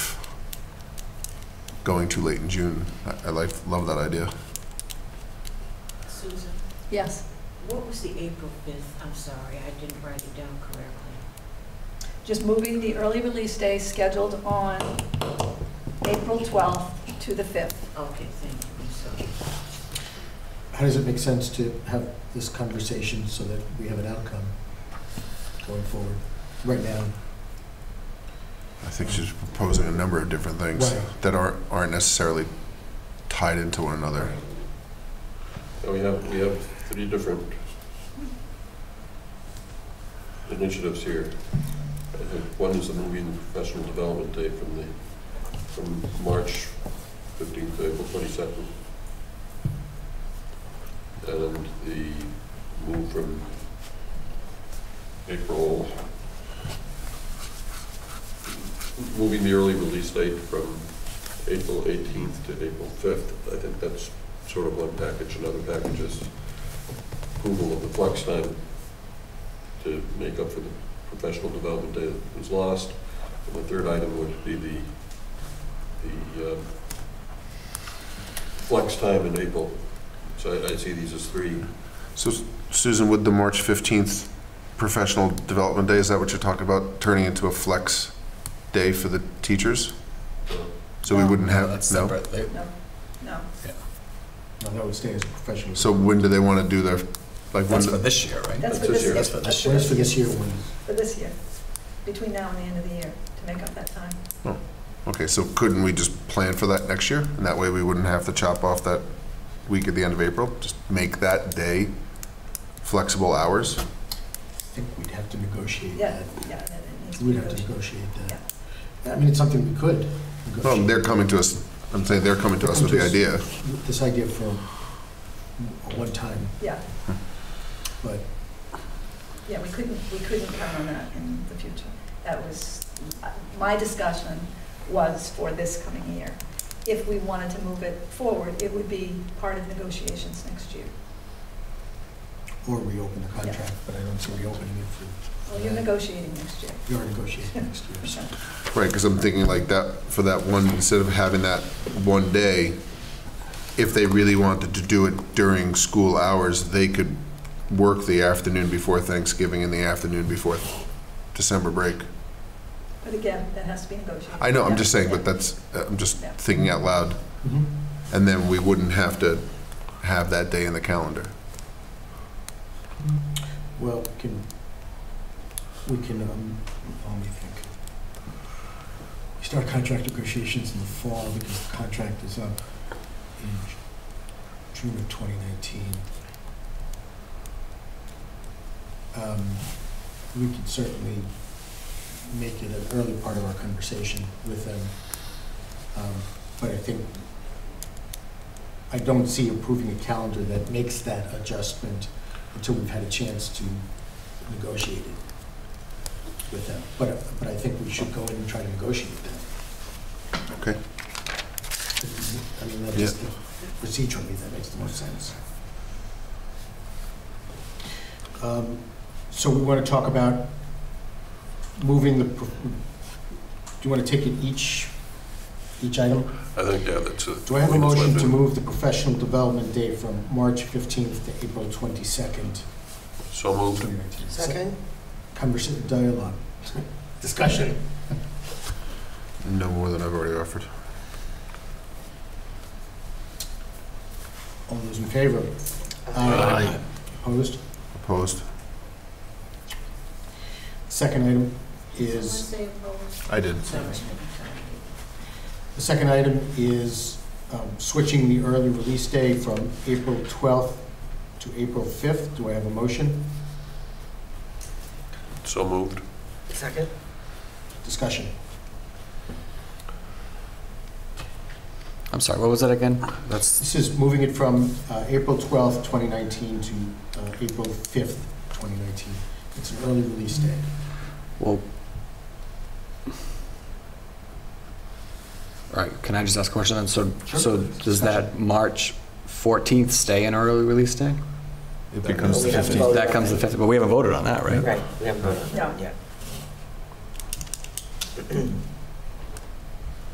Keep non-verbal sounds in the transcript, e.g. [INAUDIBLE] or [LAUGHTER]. going too late in June. I, I like, love that idea. Susan, Yes. what was the April 5th? I'm sorry, I didn't write it down correctly. Just moving the early release day scheduled on April 12th to the 5th. Okay, thank you, I'm sorry. How does it make sense to have this conversation so that we have an outcome going forward? Right now, I think she's proposing a number of different things Right. that aren't, aren't necessarily tied into one another. We have, we have three different initiatives here. I think one is the movie and professional development day from the, from March 15th to April 22nd. And the move from April, moving the early release date from April 18th to April 5th. I think that's sort of one package, another package is approval of the flex time to make up for the professional development day that was lost. And the third item would be the, the um, flex time in April. So I- I see these as three. So Susan, would the March 15th professional development day, is that what you're talking about, turning into a flex day for the teachers? So we No. wouldn't have, That's no? separate. They- No. no, that would stay as a professional. So when do they want to do their, like, when, That's for do- this year, right? That's That's for this this year. year. That's for this Where's for this year one? For this year, between now and the end of the year, to make up that time. okay, so couldn't we just plan for that next year? And that way we wouldn't have to chop off that week at the end of April? Just make that day flexible hours? I think we'd have to negotiate Yeah, that. yeah, that it needs to be We'd have to good. negotiate that. I mean, it's something we could Well, negotiate. they're coming to us, I'm saying they're coming to us with the idea. This idea for a one-time, Yeah, but yeah, we couldn't, we couldn't count on that in the future. That was, my discussion was for this coming year. If we wanted to move it forward, it would be part of negotiations next year. or reopen the contract, but I don't see reopening it for. Well, you're negotiating next year. We are negotiating next year, [LAUGHS] so. Right, because I'm thinking like that, for that one, instead of having that one day, if they really wanted to do it during school hours, they could work the afternoon before Thanksgiving and the afternoon before December break. But again, that has to be negotiated. I know, I'm just saying, Yeah. but that's, I'm just Yeah. thinking out loud. Mhm. And then we wouldn't have to have that day in the calendar. Well, can, we can, um, let me think. We start contract negotiations in the fall because the contract is up in Ju- June of 2019. Um, We could certainly make it an early part of our conversation with them. Um, But I think, I don't see approving a calendar that makes that adjustment until we've had a chance to negotiate it with them. But, but I think we should go in and try to negotiate that. Okay. I mean, that is, the- procedurally, that makes the most sense. Um, So we want to talk about moving the, pro- do you want to take it each, each item? I think, yeah, that's a. Do I have a motion to move the professional development day from March 15th to April 22nd, So moved. 2019? Conversation, dialogue, discussion. No more than I've already offered. All those in favor? Aye. Opposed? Opposed? Second item Someone is, say opposed? I did. Sorry, Sorry. sorry. the second item is um, switching the early release day from April 12th to April 5th. Do I have a motion? So moved. Second? Discussion. I'm sorry, what was that again? That's, This is moving it from uh, April 12th, 2019 to uh, April 5th, 2019. It's an early release day. well, all right, can I just ask a question then? So, Sure. so does that March 14th stay an early release day? It becomes the We have to 15th. vote. That comes the 15th, but we haven't voted on that, right? Right, we haven't voted on that yet.